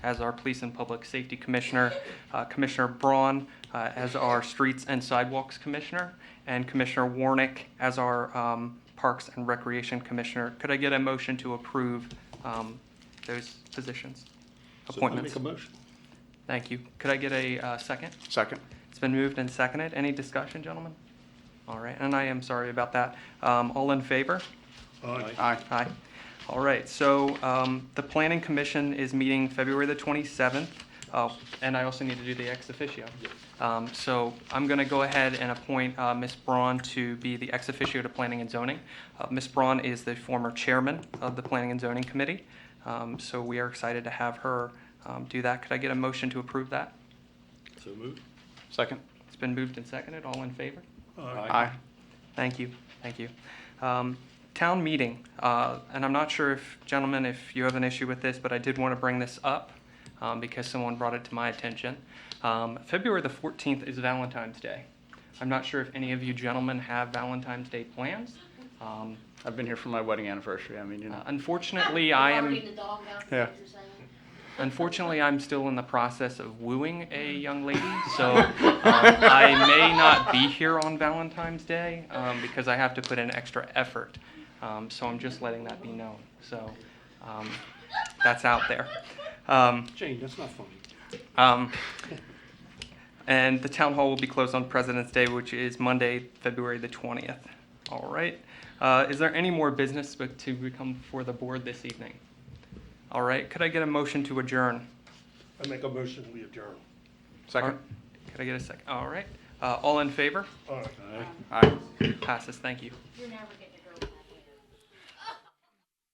as our Police and Public Safety Commissioner, uh, Commissioner Braun uh, as our Streets and Sidewalks Commissioner, and Commissioner Warnick as our um, Parks and Recreation Commissioner. Could I get a motion to approve um, those positions? So I Appointments. Make a motion. Thank you. Could I get a uh, second? Second. It's been moved and seconded. Any discussion, gentlemen? All right, and I am sorry about that. Um, All in favor? Aye. Aye. All right, so um, the Planning Commission is meeting February the 27th, Oh, and I also need to do the ex officio. Um, So I'm going to go ahead and appoint uh, Ms. Braun to be the ex officio to Planning and Zoning. Uh, Ms. Braun is the former chairman of the Planning and Zoning Committee, Um, so we are excited to have her um, do that. Could I get a motion to approve that? So moved. Second. It's been moved and seconded. All in favor? Aye. Thank you, thank you. Um, Town meeting, uh, and I'm not sure if, gentlemen, if you have an issue with this, but I did want to bring this up um, because someone brought it to my attention. Um, February the 14th is Valentine's Day. I'm not sure if any of you gentlemen have Valentine's Day plans. Um, uh, I've been here for my wedding anniversary. I mean, you know. Unfortunately, I am. Already in the doghouse, is Yeah. what you're saying? Unfortunately, I'm still in the process of wooing a young lady, so um, I may not be here on Valentine's Day um, because I have to put in extra effort. Um, so I'm just letting that be known. So um, that's out there. Um, Jane, that's not funny. um, and the town hall will be closed on President's Day, which is Monday, February the 20th. All right. Uh, is there any more business but to become before the board this evening? All right. Could I get a motion to adjourn? I make a motion, we adjourn. Second. All- Could I get a second? All right. Uh, all in favor? All right. Aye. Passes. Thank you. You're never getting